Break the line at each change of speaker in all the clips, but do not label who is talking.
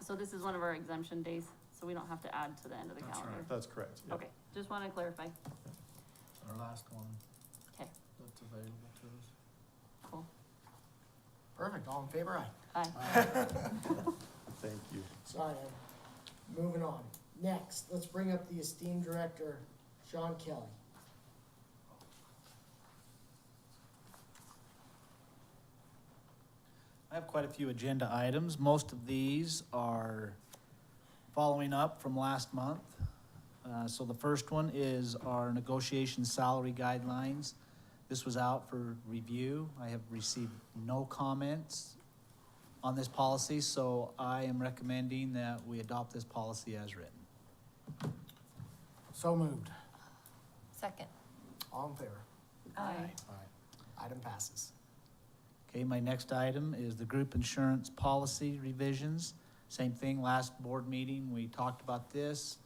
so this is one of our exemption days, so we don't have to add to the end of the
That's
calendar.
right.
That's correct, yeah.
Okay, just wanna clarify,
Our last one.
'Kay.
That's available to us.
cool,
Perfect, all in favor, aye?
aye.
Thank you.
Sorry, I'm moving on. Next, let's bring up the esteemed director, Sean Kelly.
I have quite a few agenda items. Most of these are following up from last month. Uh, So the first one is our negotiation salary guidelines. This was out for review. I have received no comments on this policy, so I am recommending that we adopt this policy as written.
So moved,
Second.
all in favor,
Aye.
aye. Item passes.
Okay, my next item is the group insurance policy revisions. Same thing, last board meeting, we talked about this.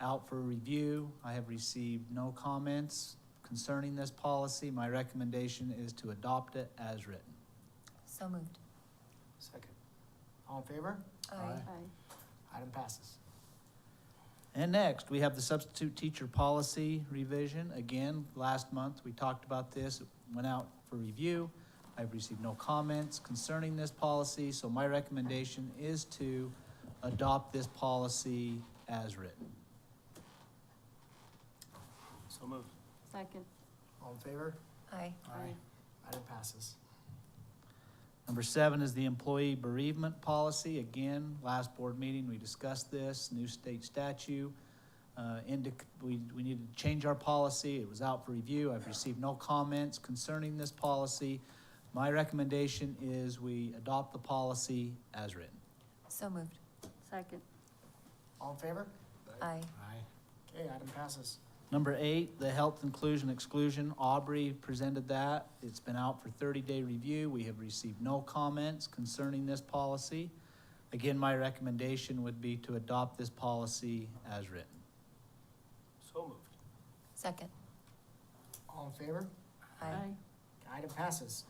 Out for review, I have received no comments concerning this policy. My recommendation is to adopt it as written.
So moved.
Second. All in favor?
Aye.
Aye.
Item passes.
And next, we have the substitute teacher policy revision. Again, last month, we talked about this, It went out for review. I've received no comments concerning this policy, so my recommendation is to adopt this policy as written.
So moved.
Second,
All in favor?
Aye.
Aye.
Item passes.
Number seven is the employee bereavement policy. Again, last board meeting, we discussed this, new state statute. Uh, indic, we, we need to change our policy. It was out for review. I've received no comments concerning this policy. My recommendation is we adopt the policy as written.
So moved.
second,
All in favor?
Aye.
Aye. Okay, item passes.
Number eight, the health inclusion exclusion, Aubrey presented that. It's been out for thirty-day review. We have received no comments concerning this policy. Again, my recommendation would be to adopt this policy as written.
So moved.
Second.
All in favor?
aye,
Item passes.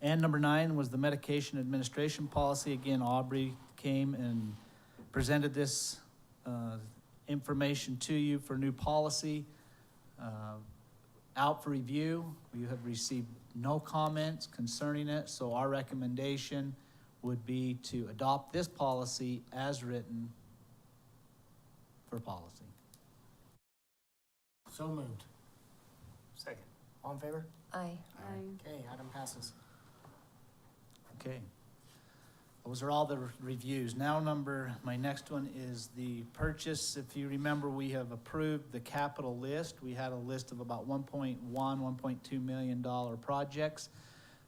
And number nine was the medication administration policy. Again, Aubrey came and presented this uh, information to you for new policy. uh, Out for review, you have received no comments concerning it, so our recommendation would be to adopt this policy as written for policy.
So moved. Second. All in favor?
Aye.
aye.
Okay, item passes.
Okay. Those are all the re- reviews. Now number, my next one is the purchase. If you remember, we have approved the capital list. We had a list of about 1.1, 1.2 million dollar projects.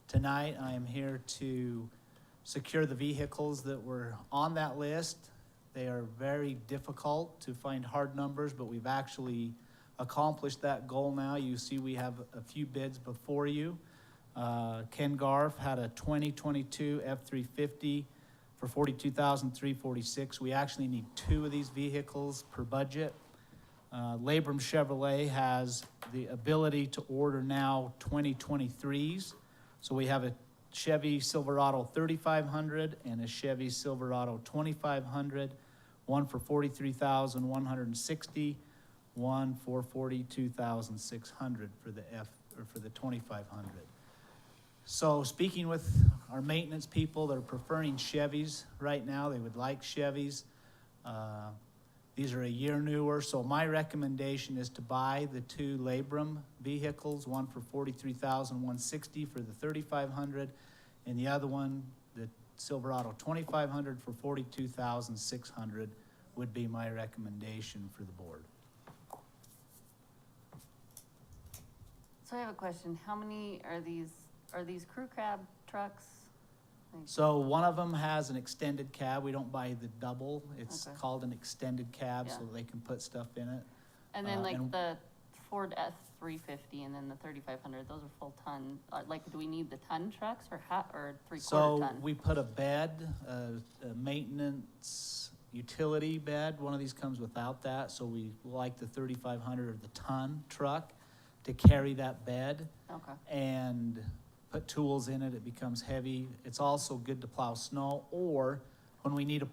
Tonight, I am here to secure the vehicles that were on that list. They are very difficult to find hard numbers, but we've actually accomplished that goal now. You see, we have a few bids before you. Uh, Ken Garf had a 2022 F-350 for 42,346. We actually need two of these vehicles per budget. Uh, Labrum Chevrolet has the ability to order now 2023s. So we have a Chevy Silverado 3500 and a Chevy Silverado 2500, one for 43,160, one for 42,600 for the F, or for the 2500. So speaking with our maintenance people, they're preferring Chevys right now. They would like Chevys. Uh, These are a year newer, so my recommendation is to buy the two Labrum vehicles, one for forty-three thousand one sixty for the thirty-five hundred, and the other one, the Silverado twenty-five hundred for forty-two thousand six hundred would be my recommendation for the board.
So I have a question, how many are these, are these crew cab trucks? Like,
So one of them has an extended cab. We don't buy the double. It's
Okay.
called an extended cab, so
Yeah.
they can put stuff in it.
And
uh,
then like
and-
the Ford F three fifty and then the thirty-five hundred, those are full ton, Uh, like, do we need the ton trucks or ha, or three-quarter
So
ton?
we put a bed, a, a maintenance utility bed. One of these comes without that, so we like the thirty-five hundred or the ton truck to carry that bed
Okay,
and put tools in it. It becomes heavy. It's also good to plow snow or when we need a